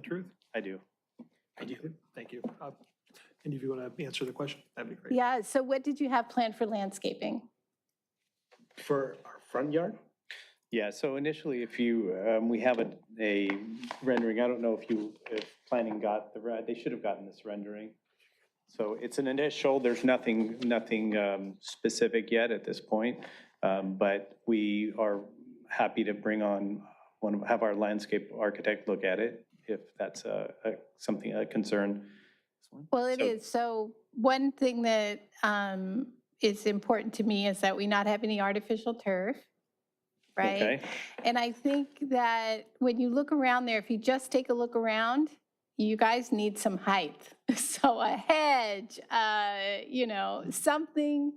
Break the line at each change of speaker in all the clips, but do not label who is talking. truth?
I do.
I do. Thank you. Uh, Any of you want to answer the question? That'd be great.
Yeah, so what did you have planned for landscaping?
For our front yard?
Yeah, so initially, if you, um, we have a, a rendering, I don't know if you, if planning got the, re- they should have gotten this rendering. So it's an initial, there's nothing, nothing, um, specific yet at this point. Um, but we are happy to bring on, one, of- have our landscape architect look at it, if that's a, a, something, a concern.
Well, it
So-
is, so one thing that um, is important to me is that we not have any artificial turf, right?
Okay,
And I think that when you look around there, if you just take a look around, you guys need some height. So a hedge, uh, you know, something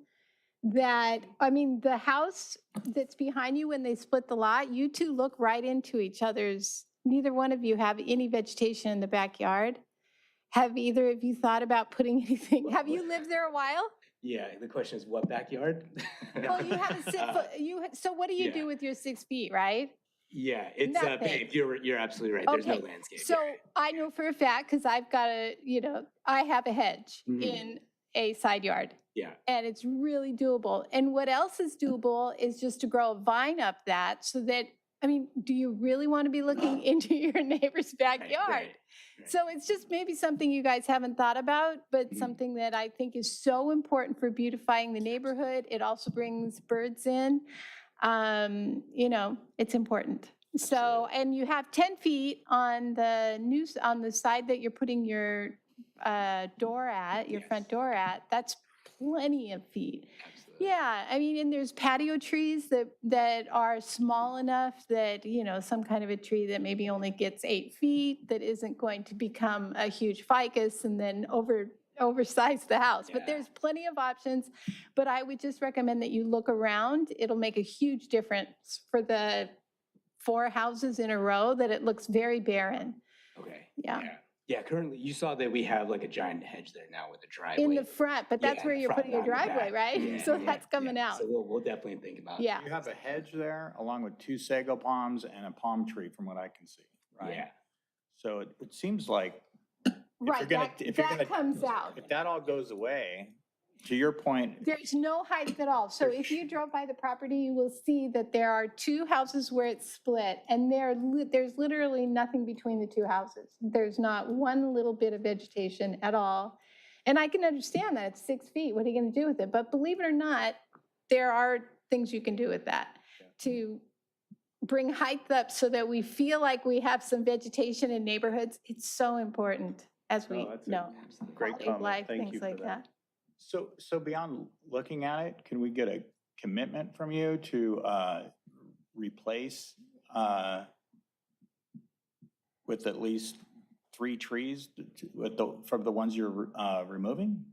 that, I mean, the house that's behind you when they split the lot, you two look right into each other's, neither one of you have any vegetation in the backyard. Have either of you thought about putting anything, have you lived there a while?
Yeah, the question is what backyard?
Well, you have a six
Uh,
foot, you, so what do you
yeah.
do with your six feet, right?
Yeah, it's, uh,
Nothing.
babe, you're, you're absolutely right. There's no
Okay,
landscape.
So I know for a fact, because I've got a, you know, I have a hedge
Mhm.
in a side yard.
Yeah.
And it's really doable. And what else is doable is just to grow a vine up that so that, I mean, do you really want to be looking into your neighbor's
Right,
backyard?
right. right.
So it's just maybe something you guys haven't thought about, but
Mhm.
something that I think is so important for beautifying the neighborhood. It also brings birds in. Um, you know, it's important. So, and you have 10 feet on the news, on the side that you're putting your uh, door at, your front
Yes.
door at. That's plenty of feet.
Absolutely.
Yeah, I mean, and there's patio trees that, that are small enough that, you know, some kind of a tree that maybe only gets eight feet, that isn't going to become a huge ficus and then over, oversize the house. But
Yeah.
there's plenty of options, but I would just recommend that you look around. It'll make a huge difference for the four houses in a row that it looks very barren.
Okay.
Yeah.
Yeah, currently, you saw that we have like a giant hedge there now with a driveway.
In the front, but
Yeah,
that's
in
where
the
you're
front,
putting your
not in the
driveway,
back.
right?
Yeah,
So
yeah,
that's coming
yeah.
out.
So we'll, we'll definitely think about.
Yeah.
You have a hedge there along with two sago palms and a palm tree from what I can see, right?
Yeah.
So it, it seems like if you're
Right,
gonna,
that,
if you're gonna.
that comes out.
If that all goes away, to your point,
There's no height at all. So if you drove by the property, you will see that there are two houses where it's split and there, li- there's literally nothing between the two houses. There's not one little bit of vegetation at all. And I can understand that, it's six feet, what are you gonna do with it? But believe it or not, there are things you can do with that to bring height up so that we feel like we have some vegetation in neighborhoods. It's so important as we
Oh, that's a
know.
Absolutely.
great
quality of
comment.
life,
Thank
things
you for
like
that.
so, so beyond looking at it, can we get a commitment from you to, uh, replace, uh, with at least three trees t- t- with the, from the ones you're, uh, removing?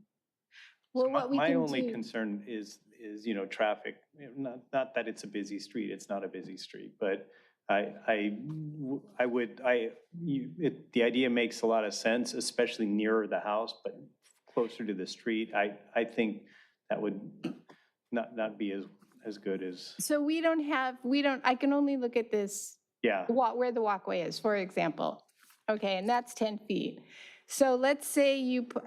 Well,
My-
what we
My
can
only
do-
concern is, is, you know, traffic, not, not that it's a busy street, it's not a busy street, but I, I, w- I would, I, you, it, the idea makes a lot of sense, especially nearer the house, but closer to the street, I, I think that would not, not be as, as good as,
So we don't have, we don't, I can only look at this,
yeah.
wa- where the walkway is, for example. Okay, and that's 10 feet. So let's say you put,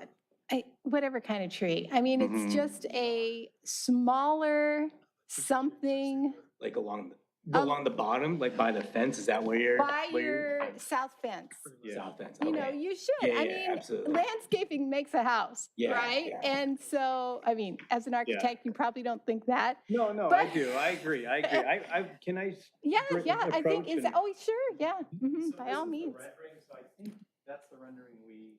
I- whatever kind of tree. I mean,
Mhm.
Mm-hmm.
it's just a smaller something
Like along, the
Um,
along the bottom, like by the fence, is that where you're?
by
where you're-
your south fence.
Yeah.
South fence,
You know,
okay.
you should.
Yeah,
I
yeah,
mean,
absolutely.
landscaping makes a house,
Yeah,
right?
yeah.
And so, I mean, as an architect, you probably don't think that.
No, no,
I
I
But-
do, I agree, I agree, I, I, can I?
Yeah,
Great
yeah, I think,
approach
is,
and-
oh, sure, yeah,
Mm-hmm.
mhm, by all means.
So I think that's the rendering we,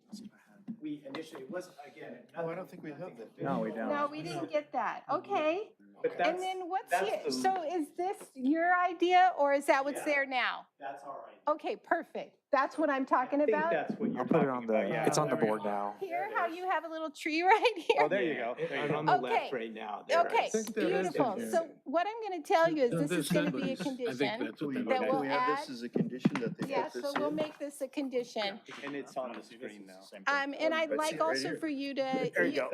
we initially, it wasn't, again.
Oh, I don't think we have that.
No, we don't.
No, we didn't get that. Okay.
But
And
that's,
then what's
that's
here?
the-
So is this your idea or is that what's
Yeah.
there now?
that's all right.
Okay, perfect. That's what I'm talking
I think
about.
that's what you're
I'll put
talking
it on
about, yeah.
the, it's on the
There we
board
go.
now.
Here, how you have a little tree right here?
Oh, there you
Yeah,
go, there you
and
go.
On the left
Okay.
right now. there
Okay,
is-
think that is
beautiful.
there.
So what I'm going to tell you is
No,
this is going to be a
numbers. I think
condition.
that's what
that
that
Okay.
was.
we'll
We have this
add-
as a condition that they
Yeah,
put this
so we'll
in.
make this a condition.
And it's on the screen now.
Um, and I'd
That's
like
it right
also
here.
for you to,
There you
you-
go.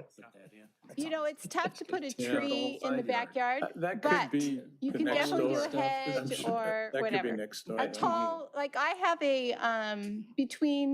you know, it's tough to put a
Yeah.
tree in the
Side yard.
backyard.
Uh, That
But
could be.
you
the
can
next
definitely do
door
a
stuff.
hedge
I'm sure-
or
That could be
whatever.
next door.
A
yeah.
tall, like I have a, um, between